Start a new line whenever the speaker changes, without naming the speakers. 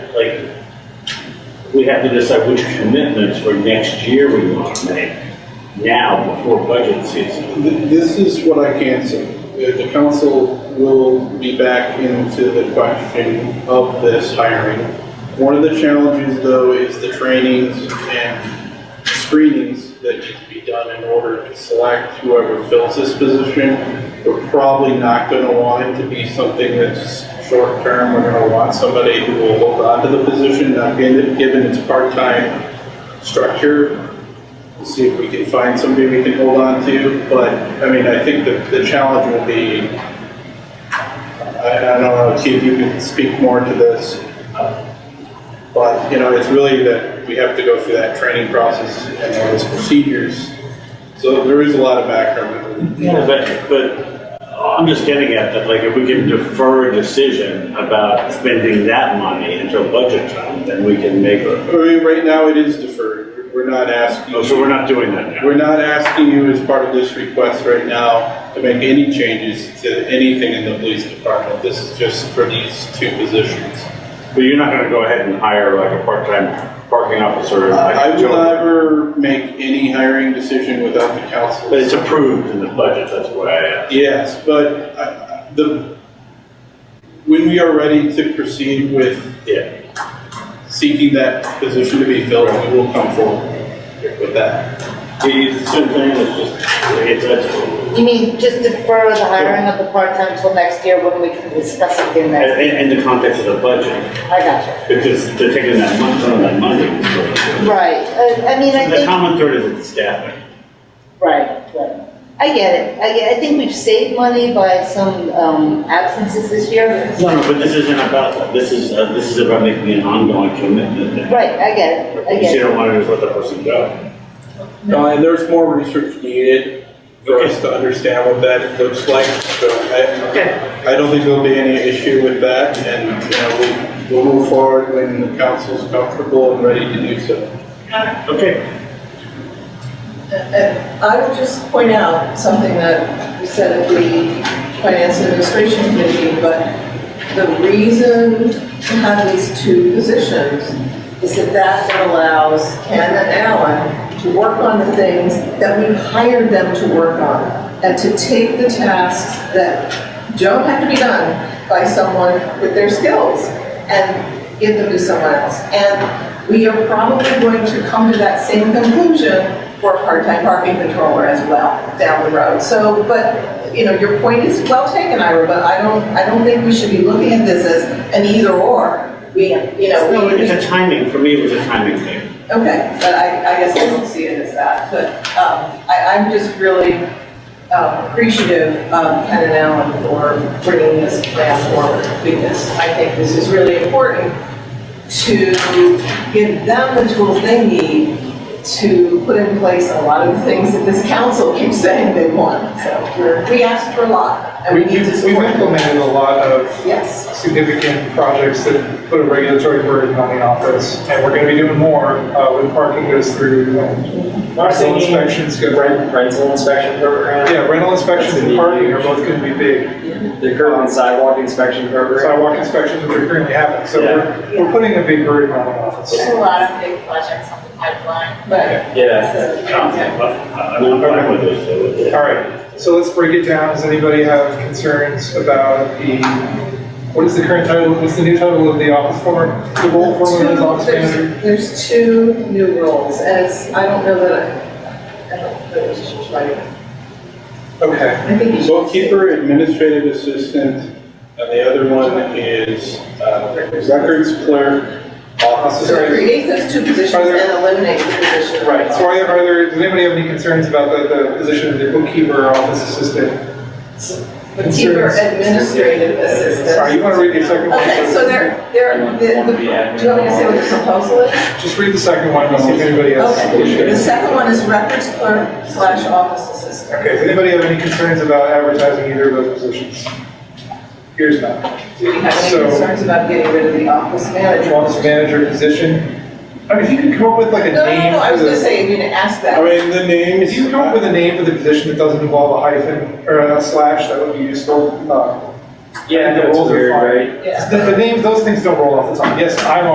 we have to decide which commitments for next year we want to make now before budget season.
Th- This is what I can say. The the council will be back into the question of this hiring. One of the challenges, though, is the trainings and screenings that need to be done in order to select whoever fills this position. We're probably not going to want it to be something that's short-term. We're going to want somebody who will hold on to the position, not given given its part-time structure. We'll see if we can find somebody we can hold on to, but, I mean, I think the, the challenge will be, I, I don't know, Keith, you can speak more to this, but, you know, it's really that we have to go through that training process and all those procedures. So there is a lot of background.
Yeah, but, but I'm just getting at that, like, if we can defer a decision about spending that money until budget time, then we can make
I
a,
mean, right now it is deferred. We're not asking.
Oh, so we're not doing that now.
We're not asking you as part of this request right now to make any changes to anything in the police department. This is just for these two positions.
But you're not gonna go ahead and hire like a part-time parking officer like
I will
Joe.
never make any hiring decision without the
But it's
council.
approved in the budget, that's why I asked.
Yes, but I- I- the, when we are ready to proceed with
Yeah,
seeking that position to be filled, we will come forward with that.
it's the same thing, it's just, it's, it's,
You mean just defer the hiring of the part-time till next year when we can discuss it in
and,
next?
and in the context of the budget,
I got
because they're taking that money, some of that money.
you. Right, Uh, I mean, I
The
think,
common thread is it's staffing.
right, right. I get it, I get, I think we've saved money by some um, absences this year.
No, no, but this isn't about that, this is, uh, this is about making an ongoing commitment. that-
Right, I get it, I
Because
get
you
it.
don't wanna just let that person go.
No, and there's more research needed for us to understand what that looks like, so I,
Okay.
I don't think there'll be any issue with that, and, you know, we'll, we'll move forward when the council's comfortable and ready to do so.
Okay,
And uh, I would just point out something that we said at the Finance and Administration Committee, but the reason to have these two positions is that that then allows Ken and Alan to work on the things that we hired them to work on, and to take the tasks that don't have to be done by someone with their skills, and give them to someone else. And we are probably going to come to that same conclusion for a part-time parking controller as well down the road. So, but, you know, your point is well taken, Ira, but I don't, I don't think we should be looking at this as an either-or. We, you know,
no,
we.
it's a timing, for me, it was a timing thing.
Okay, but I, I guess I don't see it as that, but, um, I, I'm just really um, appreciative of Ken and Alan for bringing this plan forward, because I think this is really important to give them the tools they need to put in place a lot of the things that this council keeps saying they want, so we're, we asked for a lot, and we need to
We've
support them.
implemented a lot of
Yes.
significant projects that put a regulatory burden on the office, and we're gonna be doing more, uh, when parking goes through, and
Our
rental inspections go.
rent, rental inspection program.
Yeah, rental inspections and parking are both gonna be big,
The curb and sidewalk inspection program.
sidewalk inspections, which are currently happening, so we're, we're putting a big burden on the office.
There's a lot of big projects on the pipeline. Um, But.
Yeah.
so-
I mean, Uh, I'm fine with this, so. it's-
All right, so let's break it down, does anybody have concerns about the, what is the current title, what's the new title of the office former, the role former is office
Two- there's-
manager?
There's two new roles, and it's, I don't know that, I- I don't know what you should try to-
Okay.
I think you should.
Bookkeeper, administrative assistant, and the other one is, uh, records clerk, office
So
secretary.
create those two positions
Are there-
and eliminate the position.
Right, so are there, are there, does anybody have any concerns about the, the position of the bookkeeper or office assistant?
Bookkeeper, administrative assistant.
Sorry, you want to read the second one?
Okay, so there, there, the, the- do you want me to say what the proposal is?
Just read the second one, and see if anybody has
Okay, the
issues.
second one is records clerk slash office assistant.
Okay, does anybody have any concerns about advertising either of those positions? Here's none.
Do we have any
So-
concerns about getting rid of the office manager?
Office manager position, I mean, if you could come up with like a
No, no,
name
no, I
for
was gonna
the,
say, you didn't ask that.
I mean, the name
if
is.
you could come up with a name for the position that doesn't involve a hyphen or a slash, that would be useful. Uh,
Yeah,
the
that's
roles are
weird,
fine.
right?
Yeah.
The, the names, those things don't roll off the tongue. Yes, I'm